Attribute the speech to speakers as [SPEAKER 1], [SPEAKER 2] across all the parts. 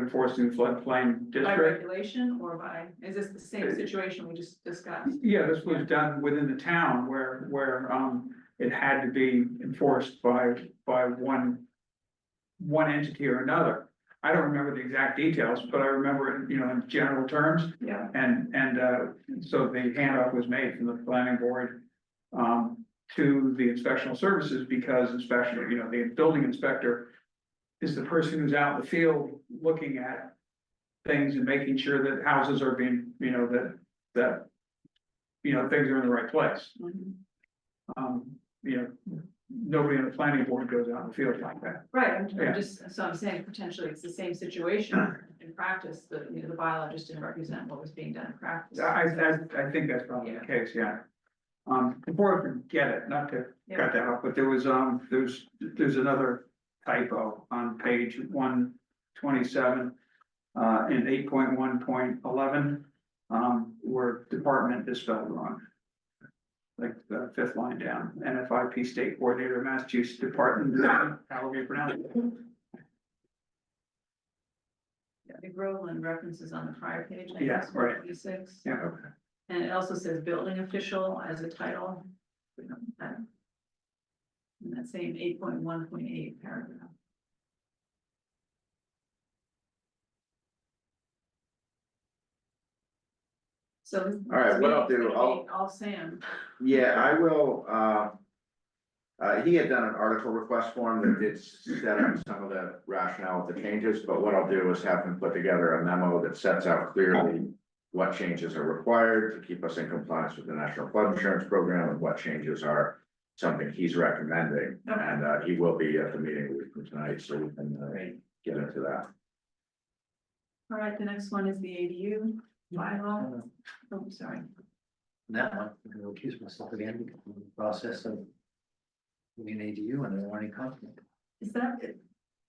[SPEAKER 1] enforced in floodplain
[SPEAKER 2] By
[SPEAKER 1] district.
[SPEAKER 2] regulation or by, is this the same situation we just discussed?
[SPEAKER 1] Yeah, this was done within the town where, where, um, it had to be enforced by, by one. One entity or another. I don't remember the exact details, but I remember it, you know, in general terms.
[SPEAKER 2] Yeah.
[SPEAKER 1] And, and, uh, so the handoff was made from the planning board. Um, to the inspectional services because inspection, you know, the building inspector. Is the person who's out in the field looking at. Things and making sure that houses are being, you know, that, that you know, things are in the right place.
[SPEAKER 2] Mhm.
[SPEAKER 1] Um, you know, nobody on the planning board goes out in the field like that.
[SPEAKER 2] Right, I'm,
[SPEAKER 1] Yeah.
[SPEAKER 2] I'm just, so I'm saying potentially it's the same situation in practice, the, you know, the bylaw just didn't represent what was being done in practice.
[SPEAKER 1] I, I, I think that's probably the case, yeah. Um, before I forget it, not to
[SPEAKER 2] Yeah.
[SPEAKER 1] cut that off, but there was, um, there's, there's another typo on page one twenty-seven. Uh, in eight point one point eleven, um, where department is spelled wrong. Like the fifth line down, NFIP State Coordinator, Massachusetts Department, how would you pronounce it?
[SPEAKER 2] The Groveland references on the prior page, I
[SPEAKER 1] Yeah,
[SPEAKER 2] guess,
[SPEAKER 1] right.
[SPEAKER 2] E six.
[SPEAKER 1] Yeah,
[SPEAKER 2] And it also says building official as a title. um, In that same eight point one point eight paragraph. So.
[SPEAKER 3] All right, what I'll
[SPEAKER 2] this meeting's
[SPEAKER 3] do,
[SPEAKER 2] gonna be All Sam,
[SPEAKER 3] Yeah, I will, uh. Uh, he had done an article request form that did set up some of the rationale of the changes, but what I'll do is have him put together a memo that sets out clearly. What changes are required to keep us in compliance with the National Flood Insurance Program and what changes are something he's recommending. And, uh, he will be at the meeting a week from tonight, so we can, uh, get into that.
[SPEAKER 2] all right, the next one is the ADU bylaw, oh, sorry,
[SPEAKER 4] that one, I'm gonna accuse myself again because of the process of. Being an ADU and there are any conflict.
[SPEAKER 2] is that, is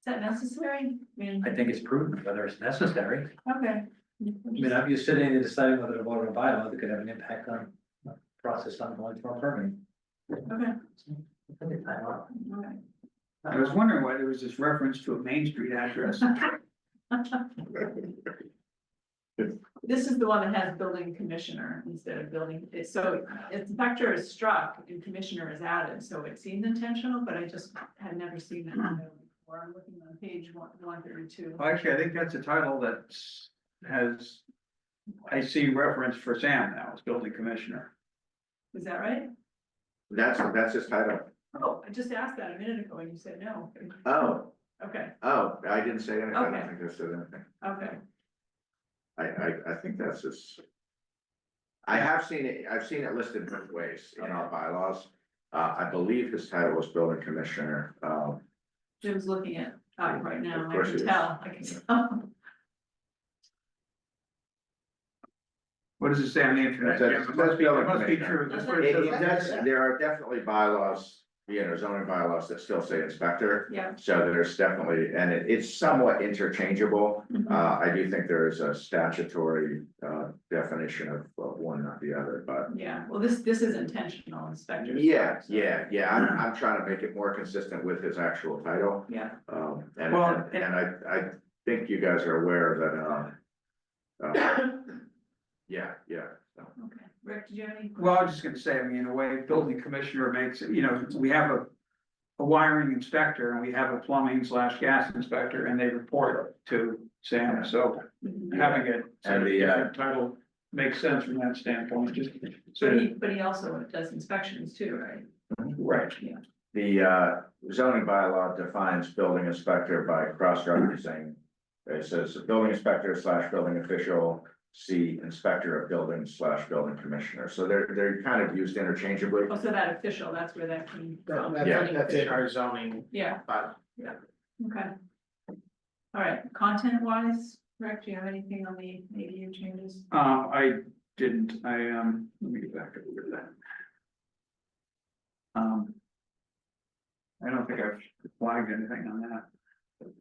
[SPEAKER 2] that necessary? I mean,
[SPEAKER 4] I think it's prudent, whether it's necessary.
[SPEAKER 2] okay.
[SPEAKER 4] I mean, I'm just sitting and deciding whether to vote on a bylaw that could have an impact on the process on going for a permit.
[SPEAKER 2] Okay,
[SPEAKER 4] Take your time out.
[SPEAKER 2] all right.
[SPEAKER 1] I was wondering why there was this reference to a Main Street address.
[SPEAKER 2] This is the one that has building commissioner instead of building, it's so inspector is struck and commissioner is added, so it seems intentional, but I just had never seen that. Or I'm looking on page one, one thirty-two.
[SPEAKER 1] Well, Actually, I think that's a title that's, has, I see reference for Sam now, as building commissioner.
[SPEAKER 2] Is that right?
[SPEAKER 3] That's, that's his title.
[SPEAKER 2] Oh, I just asked that a minute ago and you said no.
[SPEAKER 3] Oh,
[SPEAKER 2] Okay,
[SPEAKER 3] oh, I didn't say anything. I
[SPEAKER 2] Okay.
[SPEAKER 3] don't think I said anything.
[SPEAKER 2] okay,
[SPEAKER 3] I, I, I think that's just. I have seen it, I've seen it listed both ways in our bylaws. Uh, I believe his title was building commissioner, um,
[SPEAKER 2] Jim's looking at, uh, right now,
[SPEAKER 3] Of
[SPEAKER 2] I
[SPEAKER 3] course he
[SPEAKER 2] can
[SPEAKER 3] is.
[SPEAKER 2] tell, I can tell.
[SPEAKER 1] What does it say on the internet?
[SPEAKER 3] That's-
[SPEAKER 1] Jim? It must be, it must be
[SPEAKER 3] that's-
[SPEAKER 1] true. That's what
[SPEAKER 3] it-
[SPEAKER 1] it
[SPEAKER 3] it
[SPEAKER 1] says.
[SPEAKER 3] does- there are definitely bylaws, you know, zoning bylaws that still say inspector.
[SPEAKER 2] Yeah.
[SPEAKER 3] So there's definitely, and it, it's somewhat interchangeable. Uh, I do think there is a statutory, uh, definition of, of one, not the other, but.
[SPEAKER 2] Yeah, well, this, this is intentional inspector. struck,
[SPEAKER 3] Yeah,
[SPEAKER 2] so-
[SPEAKER 3] yeah, yeah, I'm, I'm trying to make it more consistent with his actual title.
[SPEAKER 2] Yeah,
[SPEAKER 3] Um, and,
[SPEAKER 1] Well,
[SPEAKER 3] and and I, I think you guys are aware that, um, uh, yeah, yeah. so.
[SPEAKER 2] okay, Rick, did you have any?
[SPEAKER 1] Well, I was just gonna say, I mean, in a way, building commissioner makes, it- you know, we have a. A wiring inspector and we have a plumbing slash gas inspector and they report to Sam, so
[SPEAKER 2] Mhm.
[SPEAKER 1] having it.
[SPEAKER 3] And the, uh,
[SPEAKER 1] Title makes sense from that standpoint, just,
[SPEAKER 2] But
[SPEAKER 1] so,
[SPEAKER 2] he, but he also does inspections too, right?
[SPEAKER 1] right.
[SPEAKER 3] The, uh, zoning bylaw defines building inspector by cross-referencing. It says building inspector slash building official, see inspector of buildings slash building commissioner. So they're, they're kind of used interchangeably.
[SPEAKER 2] Oh, so that official, that's where that came from.
[SPEAKER 3] Yeah.
[SPEAKER 5] That's in our zoning
[SPEAKER 2] Yeah,
[SPEAKER 5] bylaw.
[SPEAKER 2] okay. All right, content wise, Rick, do you have anything on the ADU changes?
[SPEAKER 1] Um, I didn't, I, um, let me get back to that. Um. I don't think I've flagged anything on that.